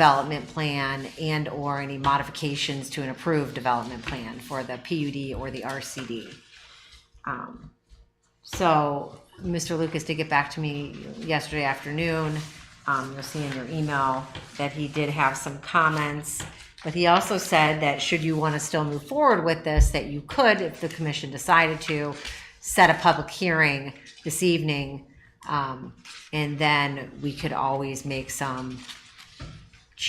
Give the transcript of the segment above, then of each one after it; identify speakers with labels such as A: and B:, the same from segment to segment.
A: development plan and/or any modifications to an approved development plan for the PUD or the RCD. Um, So Mr. Lucas did get back to me yesterday afternoon. Um, You'll see in your email that he did have some comments. But he also said that should you want to still move forward with this, that you could, if the commission decided to, set a public hearing this evening. um, And then we could always make some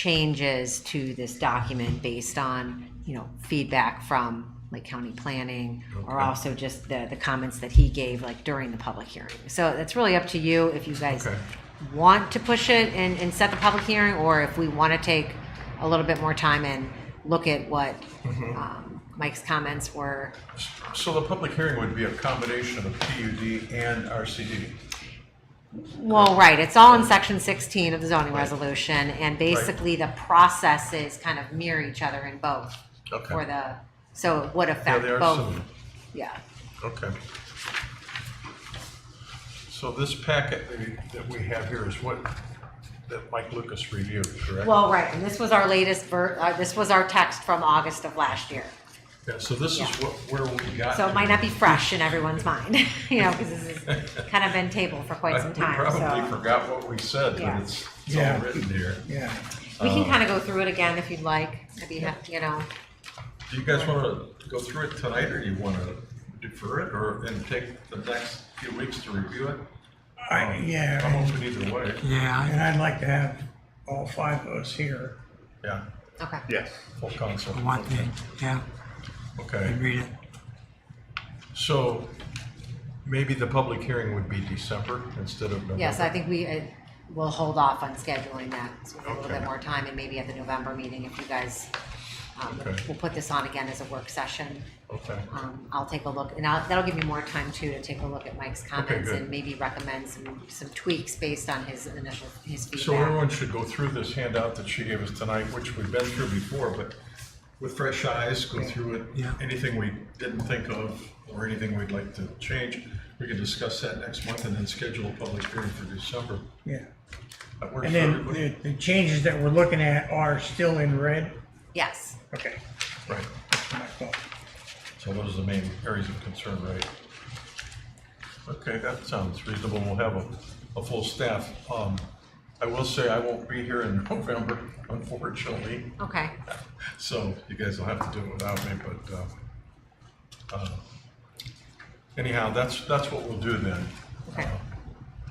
A: changes to this document based on, you know, feedback from Lake County Planning or also just the, the comments that he gave like during the public hearing. So that's really up to you if you guys
B: Okay.
A: want to push it and, and set the public hearing or if we want to take a little bit more time and look at what
B: Mm-hmm.
A: um, Mike's comments were.
B: So the public hearing would be a combination of PUD and RCD.
A: Well, right, it's all in section 16 of the zoning resolution and basically the processes kind of mirror each other in both.
B: Okay.
A: For the, so it would
B: Yeah,
A: affect
B: they are
A: both,
B: similar.
A: yeah.
B: Okay. So this packet that we- that we have here is what, that Mike Lucas reviewed, correct?
A: Well, right, and this was our latest ver, uh, this was our text from August of last year.
B: Yeah, so this is
A: yeah.
B: what, where we got.
A: So it
B: to.
A: might not be fresh in everyone's mind, you know, because this has kind of been tabled for quite
B: I-
A: some
B: We
A: time,
B: probably
A: so.
B: forgot what we said,
A: Yeah.
B: but it's, it's all
C: Yeah.
B: written there.
C: Yeah,
A: We can
B: uh,
A: kind of go through it again if you'd like, if you have, you know,
B: Do you guys want to go through it tonight, or you want to defer it, or, and take the next few weeks to review it?
C: I,
B: I'm
C: Oh, yeah,
B: open either way,
D: Yeah,
C: and I'd like to have all five of us here.
B: yeah,
A: okay.
E: Yes.
B: full council.
D: I want that. Yeah, I
B: Okay.
D: read it.
B: So maybe the public hearing would be December instead of November?
A: Yes, I think we uh, will hold off on scheduling that, so we have a little bit
B: Okay.
A: more time, and maybe at the November meeting, if you guys, um,
B: Okay.
A: we'll put this on again as a work session.
B: Okay,
A: Um, I'll take a look, and I'll, that'll give me more time too to take a look at Mike's comments
B: good.
A: and maybe recommend some, some tweaks based on his initial, his
B: so
A: feedback.
B: everyone should go through this handout that she gave us tonight, which we've been through before, but with fresh eyes, go through it.
D: Yeah.
B: Anything we didn't think of or anything we'd like to change, we can discuss that next month and then schedule a public hearing for December.
C: Yeah,
B: That works
C: and
B: for
C: then
B: everybody?
C: the, the changes that we're looking at are still in red.
A: Yes,
C: Okay,
B: Right,
C: that's my fault.
B: so those are the main areas of concern, right? Okay, that sounds reasonable, we'll have a, a full staff. Um, I will say I won't be here in November, unfortunately.
A: okay,
B: So you guys will have to do it without me, but, uh, uh, anyhow, that's, that's what we'll do then.
A: Okay.
B: Uh,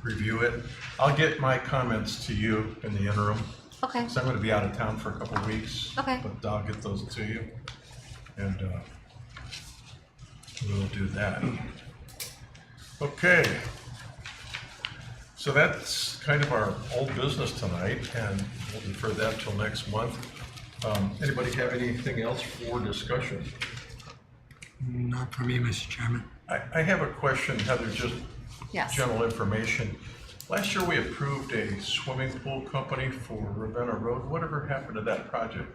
B: Review it. I'll get my comments to you in the interim,
A: okay,
B: because I'm gonna be out of town for a couple of weeks.
A: Okay.
B: But I'll get those to you, and, uh, we'll do that. Okay. So that's kind of our old business tonight, and we'll defer that till next month. Um, Anybody have anything else for discussion?
D: Not for me, Mr. Chairman.
B: I, I have a question, Heather, just
A: yes.
B: general information. Last year, we approved a swimming pool company for Ravenna Road. Whatever happened to that project?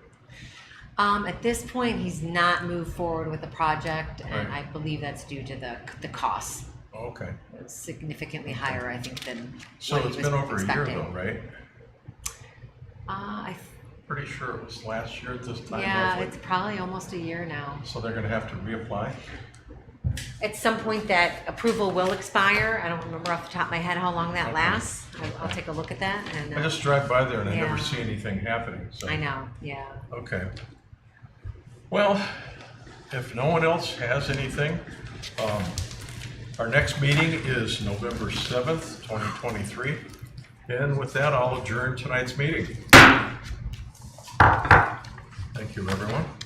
A: Um, at this point, he's not moved forward with the project, and I
B: Right.
A: believe that's due to the, the costs.
B: Okay.
A: significantly higher, I think, than
B: So
A: what he
B: it's
A: was
B: been over a year
A: expecting.
B: though, right?
A: Uh, I,
B: Pretty sure it was last year at this time.
A: yeah, it's
B: roughly.
A: probably almost a year now.
B: So they're gonna have to reapply?
A: At some point, that approval will expire. I don't remember off the top of my head how long that
B: Okay.
A: lasts. I'll, I'll take a look at that and.
B: I
A: uh,
B: just drive by there and I never
A: Yeah.
B: see anything happening, so.
A: I know, yeah.
B: Okay. Well, if no one else has anything, um, our next meeting is November 7th, 2023. And with that, I'll adjourn tonight's meeting. Thank you, everyone.